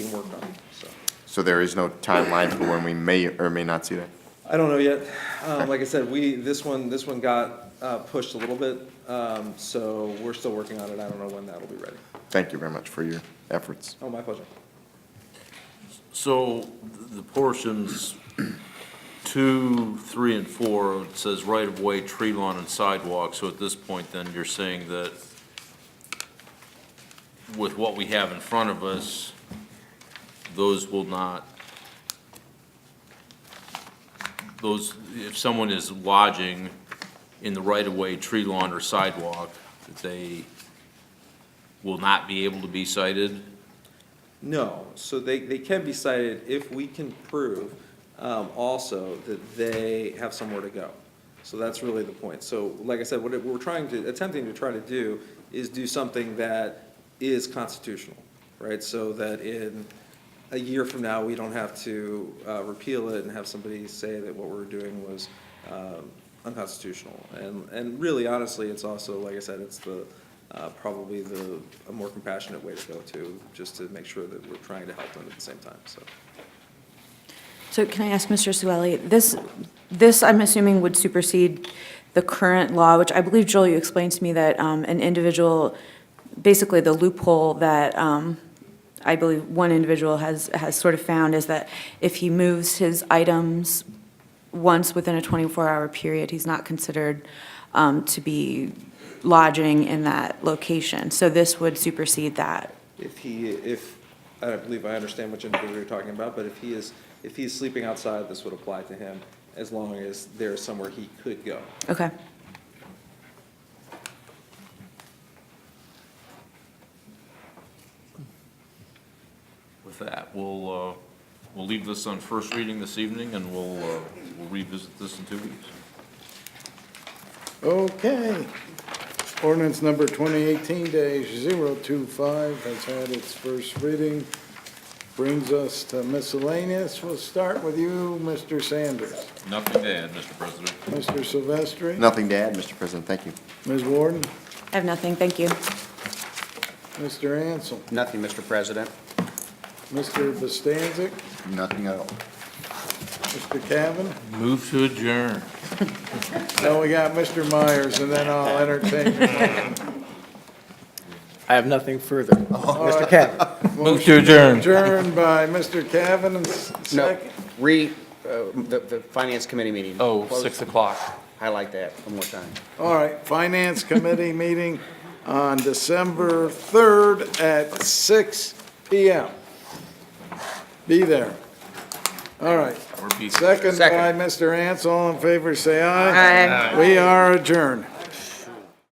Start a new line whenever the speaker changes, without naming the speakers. being worked on, so.
So there is no timeline for when we may or may not see that?
I don't know yet. Um, like I said, we, this one, this one got, uh, pushed a little bit, um, so we're still working on it. I don't know when that'll be ready.
Thank you very much for your efforts.
Oh, my pleasure.
So the portions two, three, and four, it says right-of-way, tree lawn, and sidewalk. So at this point, then, you're saying that with what we have in front of us, those will not, those, if someone is lodging in the right-of-way, tree lawn, or sidewalk, that they will not be able to be cited?
No, so they, they can be cited if we can prove, um, also that they have somewhere to go. So that's really the point. So like I said, what it- we're trying to, attempting to try to do is do something that is constitutional, right? So that in a year from now, we don't have to, uh, repeal it and have somebody say that what we're doing was, um, unconstitutional. And, and really honestly, it's also, like I said, it's the, uh, probably the, a more compassionate way to go to, just to make sure that we're trying to help them at the same time, so.
So can I ask Mr. Sueli, this, this, I'm assuming, would supersede the current law, which I believe, Joel, you explained to me that um, an individual, basically the loophole that um, I believe one individual has, has sort of found is that if he moves his items once within a 24-hour period, he's not considered um, to be lodging in that location. So this would supersede that.
If he, if, I don't believe I understand which individual you're talking about, but if he is, if he's sleeping outside, this would apply to him, as long as there's somewhere he could go.
Okay.
With that, we'll, uh, we'll leave this on first reading this evening, and we'll uh, we'll revisit this in two weeks.
Okay. Ordinance number 2018-025 has had its first reading. Brings us to miscellaneous. We'll start with you, Mr. Sanders.
Nothing to add, Mr. President.
Mr. Silvestri?
Nothing to add, Mr. President, thank you.
Ms. Warden?
I have nothing, thank you.
Mr. Ansel?
Nothing, Mr. President.
Mr. Bostancic?
Nothing at all.
Mr. Cavan?
Move to adjourn.
Now we got Mr. Myers, and then I'll entertain.
I have nothing further. Mr. Cavan?
Move to adjourn.
Adjourned by Mr. Cavan and s-
No,
second.
re, uh, the, the Finance Committee meeting.
Oh,
Close.
six o'clock.
I like that, one more time.
All right, Finance Committee meeting on December 3rd at six PM. Be there. All right.
We're beat.
Second by
Second.
Mr. Ants, all in favor, say aye. Aye. We are adjourned.